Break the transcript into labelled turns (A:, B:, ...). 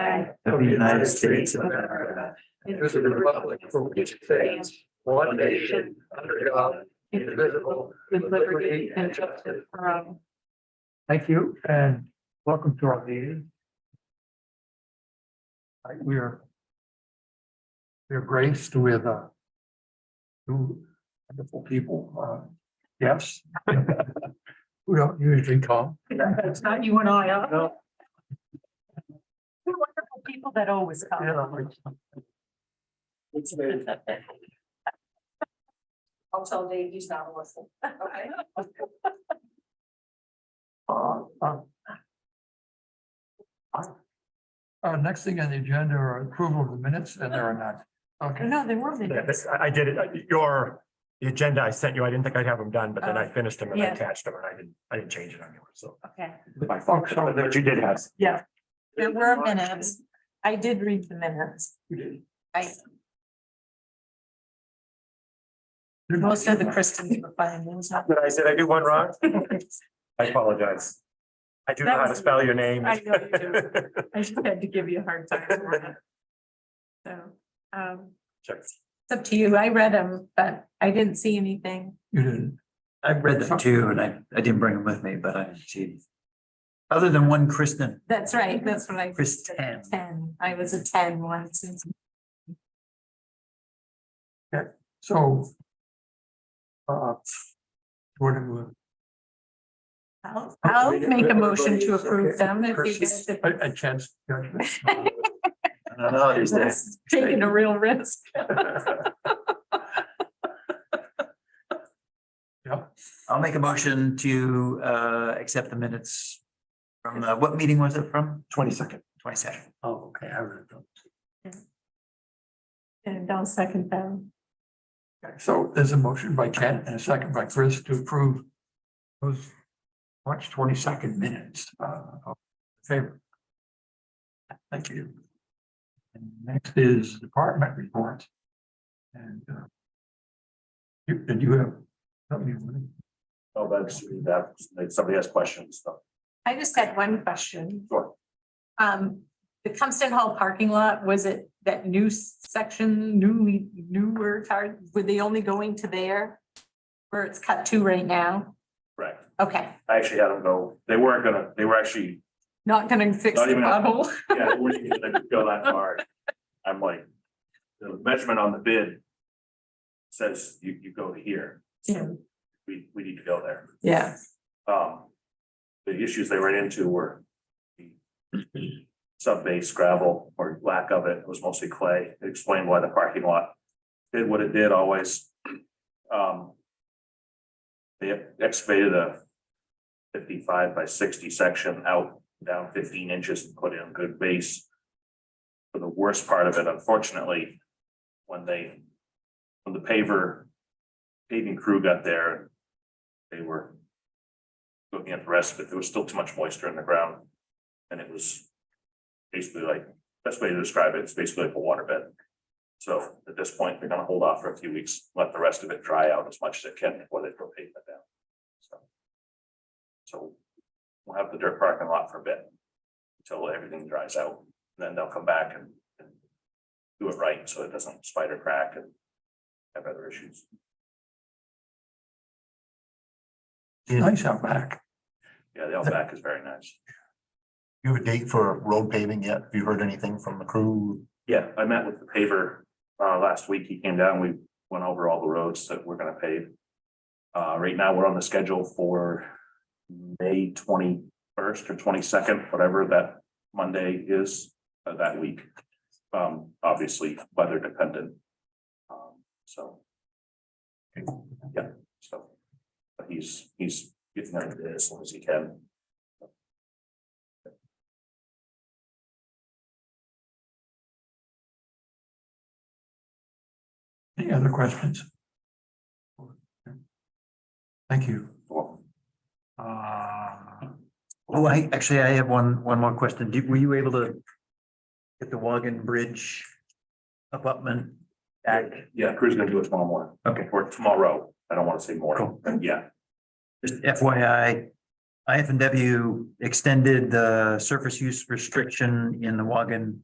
A: flag of the United States of America and to the republic for which it stands, one nation, under God, indivisible, with liberty and justice for all.
B: Thank you and welcome to our meeting. All right, We are we are graced with uh two wonderful people, uh, yes. Who don't usually come.
C: It's not you and I, huh?
B: No.
C: We're wonderful people that always
B: Yeah,
C: come.
B: like-
C: I'll tell Dave he's not listening. Okay.
B: Uh, uh, uh, uh, next thing on the agenda are approval of the minutes and there are none. Okay.
C: No, they were
D: Yeah,
C: minutes.
D: this- I, I did it, I- your, the agenda I sent you, I didn't think I'd have them done, but then I
C: Oh,
D: finished them and I
C: yeah.
D: attached them and I didn't, I didn't change it anywhere, so.
C: Okay,
D: My fault, so that you did have.
C: there were minutes. I did read the minutes.
B: You did.
C: I, most of the Christians were fine. It was not.
D: Did I say I do one wrong? I apologize. I do know how
C: That
D: to
C: was-
D: spell your name.
C: I know you do. I just had to give you a hard time. for that. So, um,
D: Check.
C: it's up to you. I read them, but I didn't see anything.
B: You didn't.
A: I read them too, and I, I didn't bring them with me, but I achieved. Other than one Kristen,
C: That's right. That's what I.
A: Kristen.
C: Ten. I was a ten once.
B: So. Uh. What do we-
C: I'll, I'll make a motion to approve them if you guys.
B: A, a chance. judgment.
A: I don't know these days.
C: That's Taking a real risk.
A: I'll make a motion to uh accept the minutes from the, what meeting was it from? Twenty second. Twenty second.
B: Oh, okay, I read them.
C: And I'll second them.
B: Okay, So there's a motion by Ken and a second by Chris to approve those March twenty-second minutes. uh, of Favor. Thank you. And next is department reports. And uh, you, did you have something you wanted?
D: Oh, that's, that, if somebody has questions, so.
C: I just had one question.
D: Sure.
C: Um, the Compton Hall parking lot, was it that new section, newly, newer car, were they only going to there? Where it's cut to right now?
D: Right,
C: Okay,
D: I actually had them go, they weren't gonna, they were actually,
C: not gonna fix
D: Not
C: the
D: even a-
C: bubble.
D: yeah, they weren't even gonna go that far. I'm like, the measurement on the bid says you, you go here, we, we need to go there.
C: Yeah,
D: um, the issues they ran into were the subbase gravel or lack of it, it was mostly clay, It explained why the parking lot did what it did always. Um, they excavated a fifty-five by sixty section out down fifteen inches and put in good base. For the worst part of it, unfortunately, when they, when the paver paving crew got there, they were looking at the rest, but there was still too much moisture in the ground. And it was basically like, best way to describe it, it's basically like a waterbed. So at this point, they're gonna hold off for a few weeks, let the rest of it dry out as much as it can before they throw pavement down. So. So we'll have the dirt parking lot for a bit until everything dries out, and then they'll come back and and do it right, so it doesn't spider crack and have other issues.
B: Nice out back.
D: Yeah, the outback is very nice.
E: You have a date for road paving yet? Have you heard anything from the crew?
D: Yeah, I met with the paver, uh, last week. He came down. We went over all the roads that we're gonna pave. Uh, right now, we're on the schedule for May twenty-first or twenty-second, whatever that Monday is, uh, that week. Um, obviously weather dependent. Um, so. Yeah, so. But he's, he's getting out of it as soon as he can.
B: Any other questions? Thank you.
D: Well,
B: Uh,
A: Oh, I, actually, I have one, one more question. Did- Were you able to get the Wagon Bridge abutment back?
D: Yeah, Crew's gonna do it tomorrow morning.
A: Okay.
D: Or tomorrow. I don't wanna say morning.
A: Cool.
D: Yeah,
A: Just FYI, IFNW extended the surface use restriction in the Wagon